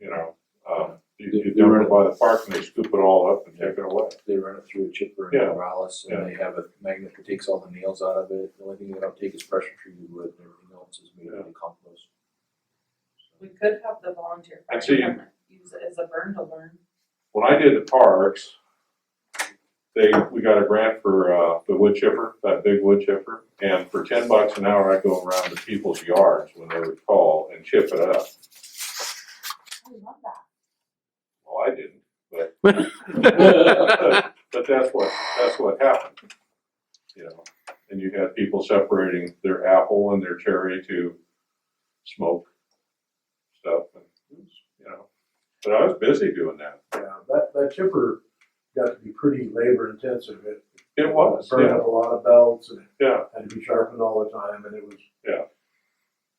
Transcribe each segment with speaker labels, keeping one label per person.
Speaker 1: you know, um, you,
Speaker 2: They-
Speaker 1: you
Speaker 2: they
Speaker 1: dump
Speaker 2: run
Speaker 1: it by the park and they scoop it all up and take it away.
Speaker 2: They run it through a chipper
Speaker 1: Yeah.
Speaker 2: and Morales,
Speaker 1: Yeah.
Speaker 2: and they have a magnet that takes all the nails out of it, the only thing they don't take is pressure treated wood, and everything else is made out of compost.
Speaker 3: We could have the volunteer fire
Speaker 1: Actually, you-
Speaker 3: department use it as a burn to learn.
Speaker 1: When I did the parks, they, we got a grant for, uh, the wood chipper, that big wood chipper. And for ten bucks an hour, I'd go around to people's yards when they would call and chip it up.
Speaker 3: I love that.
Speaker 1: Well, I didn't, but.
Speaker 4: Well,
Speaker 1: But that's what, that's what happened, you know, and you had people separating their apple and their cherry to smoke stuff and, it was, you know. But I was busy doing that.
Speaker 5: Yeah, that, that chipper got to be pretty labor intensive. It
Speaker 1: It was,
Speaker 5: Burned
Speaker 1: Oh, yeah,
Speaker 5: up a lot of belts and
Speaker 1: yeah,
Speaker 5: it had to be sharpened all the time and it was.
Speaker 1: Yeah.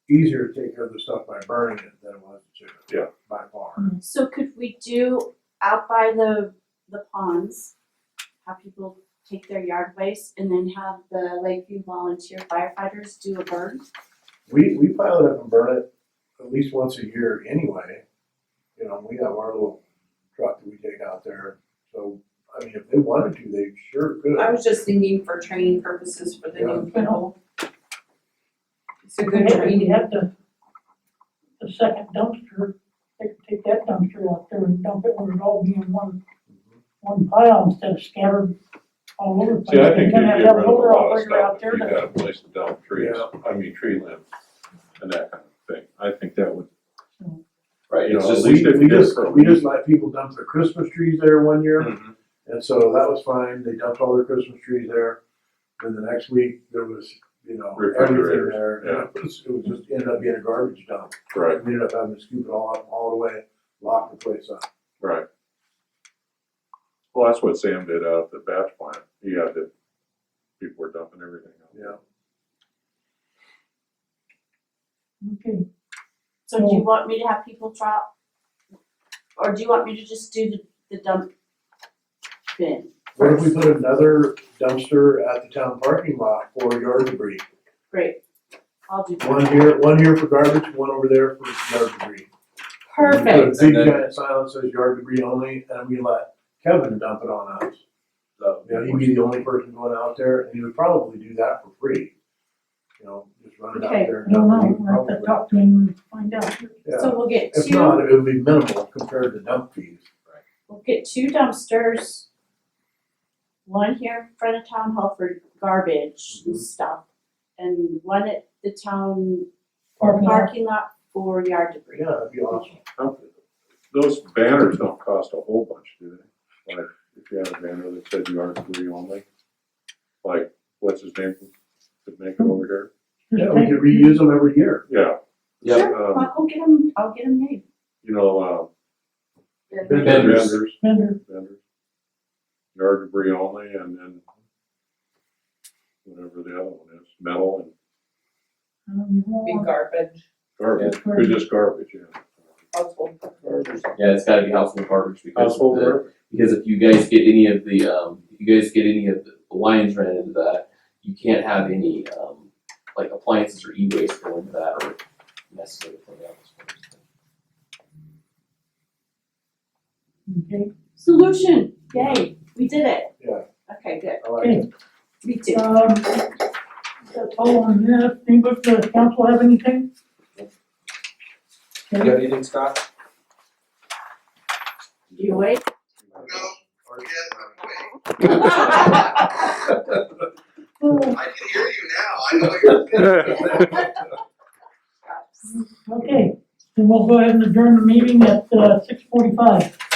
Speaker 5: Easier to take care of the stuff by burning it than it was to chip it.
Speaker 1: Yeah.
Speaker 5: By far.
Speaker 6: So could we do out by the the ponds, have people take their yard waste and then have the Lakeview volunteer firefighters do a burn?
Speaker 5: We, we pile it up and burn it at least once a year anyway. You know, we have our little truck that we take out there. So, I mean, if they wanted to, they sure could.
Speaker 3: I was just thinking for training purposes for the new people. It's a good
Speaker 7: Yeah, You
Speaker 3: training.
Speaker 7: have the, the second dumpster, take, take that dumpster out there and dump it where it all be in one, one pile instead of scattered all over. the place.
Speaker 1: see, I think
Speaker 7: You're
Speaker 1: you'd
Speaker 7: gonna
Speaker 1: get
Speaker 7: have
Speaker 1: rid
Speaker 7: that
Speaker 1: of a
Speaker 7: loader
Speaker 1: lot of
Speaker 7: operator
Speaker 1: stuff if
Speaker 7: out there
Speaker 1: you
Speaker 7: that-
Speaker 1: had a place to dump trees,
Speaker 5: Yeah.
Speaker 1: I mean, tree limbs and that kind of thing, I think that would,
Speaker 7: Hmm.
Speaker 2: Right,
Speaker 1: You
Speaker 2: it's
Speaker 1: know,
Speaker 2: just,
Speaker 1: at least
Speaker 5: We,
Speaker 1: if
Speaker 5: we
Speaker 1: you did it
Speaker 5: just,
Speaker 1: for a
Speaker 5: we
Speaker 1: week.
Speaker 5: just let people dump their Christmas trees there one year.
Speaker 1: Mhm.
Speaker 5: And so that was fine, they dumped all their Christmas trees there, then the next week, there was, you know, everything
Speaker 1: Refrigerators,
Speaker 5: there. And It was, it was just, ended up being a garbage dump,
Speaker 1: right,
Speaker 5: we ended up having to scoop it all up, all the way, lock the place up.
Speaker 1: right. Well, that's what Sam did out at the batch plant, he had the, people were dumping everything out.
Speaker 5: Yeah.
Speaker 7: Okay,
Speaker 6: So do you want me to have people drop? Or do you want me to just do the the dump bin?
Speaker 5: What if we put another dumpster at the town parking lot for yard debris?
Speaker 6: Great, I'll do that.
Speaker 5: One here, one here for garbage, one over there for yard debris.
Speaker 6: Perfect.
Speaker 5: We Put a big
Speaker 2: And then-
Speaker 5: giant sign that says yard debris only, and we let Kevin dump it on us.
Speaker 2: uh,
Speaker 5: You know, he'd be the only person going out there, and he would probably do that for free. You know, just run it out
Speaker 6: Okay.
Speaker 5: there.
Speaker 7: I don't
Speaker 5: and
Speaker 7: know,
Speaker 5: he'd
Speaker 7: we'll have to
Speaker 5: probably-
Speaker 7: talk to him and find out.
Speaker 5: Yeah,
Speaker 6: So we'll get
Speaker 5: if
Speaker 6: two,
Speaker 5: not, it would be minimal compared to dump fees.
Speaker 6: we'll get two dumpsters. One here in front of town hall for garbage and
Speaker 5: Mhm.
Speaker 6: stuff, and one at the town
Speaker 7: Parking lot.
Speaker 6: parking lot for yard debris.
Speaker 5: Yeah, that'd be awesome.
Speaker 1: How- Those banners don't cost a whole bunch, do they? Like, if you have a banner that said you are free only, like, what's his name, could make it over
Speaker 5: Yeah,
Speaker 7: uh,
Speaker 5: we could reuse them every year.
Speaker 1: here? Yeah.
Speaker 2: Yep.
Speaker 6: Sure,
Speaker 1: Um,
Speaker 6: I'll go get them, I'll get them made.
Speaker 1: you know, um,
Speaker 2: Vendors.
Speaker 1: vendors,
Speaker 7: Vendor,
Speaker 1: vendors, yard debris only, and then whatever the other one is, metal and
Speaker 7: I don't even know.
Speaker 3: Be garbage,
Speaker 1: garbage, or just garbage, yeah.
Speaker 3: household garbage.
Speaker 4: Yeah, it's gotta be household garbage because of
Speaker 1: Household
Speaker 4: the-
Speaker 1: garbage,
Speaker 4: because if you guys get any of the um if you guys get any of the lines ran into that, you can't have any um like appliances or e-waste go into that or necessarily from the office.
Speaker 7: Okay,
Speaker 6: Solution, yay, we did it.
Speaker 5: Yeah.
Speaker 6: Okay, good,
Speaker 5: I like it.
Speaker 7: okay,
Speaker 6: me too.
Speaker 7: um, that's all on that, anybody, from the council have anything?
Speaker 2: You
Speaker 7: Okay.
Speaker 2: got anything, Scott?
Speaker 6: You wait?
Speaker 8: No, yes, I'm awake. I can hear you now. I know you're.
Speaker 7: Okay, then we'll go ahead and adjourn the meeting at, uh, six forty-five.